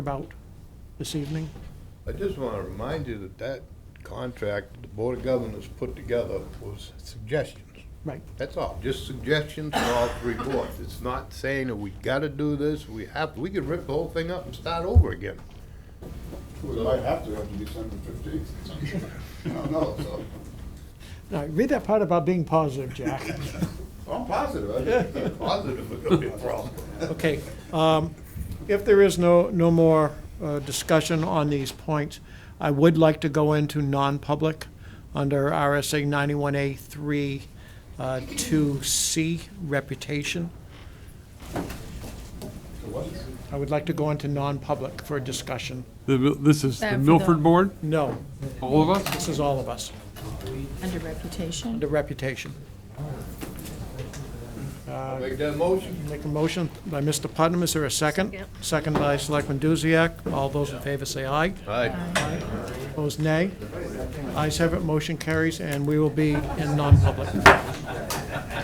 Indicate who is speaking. Speaker 1: about this evening?
Speaker 2: I just want to remind you that that contract the Board of Governors put together was suggestions.
Speaker 1: Right,
Speaker 2: That's all, just suggestions for all three boards. It's not saying that we gotta do this, we have, we could rip the whole thing up and start over again.
Speaker 3: We might have to after December fifteenth. I don't know, so,
Speaker 1: now, read that part about being positive, Jack.
Speaker 3: I'm positive, I think.
Speaker 2: Positive would be a problem.
Speaker 1: Okay, um, if there is no, no more uh, discussion on these points, I would like to go into non-public under RSA 91A 3, uh, 2C, reputation. I would like to go into non-public for a discussion.
Speaker 4: The- This is the
Speaker 5: Uh, for the-
Speaker 4: Milford Board,
Speaker 1: No,
Speaker 4: all of us?
Speaker 1: this is all of us,
Speaker 5: Under reputation?
Speaker 1: the reputation.
Speaker 2: Make that motion.
Speaker 1: Make a motion by Mr. Putnam, is there a second?
Speaker 5: Second.
Speaker 1: Second by Selectman Duziak, all those in favor say aye.
Speaker 2: Aye.
Speaker 1: Opposed, nay. Ayes have it, motion carries, and we will be in non-public.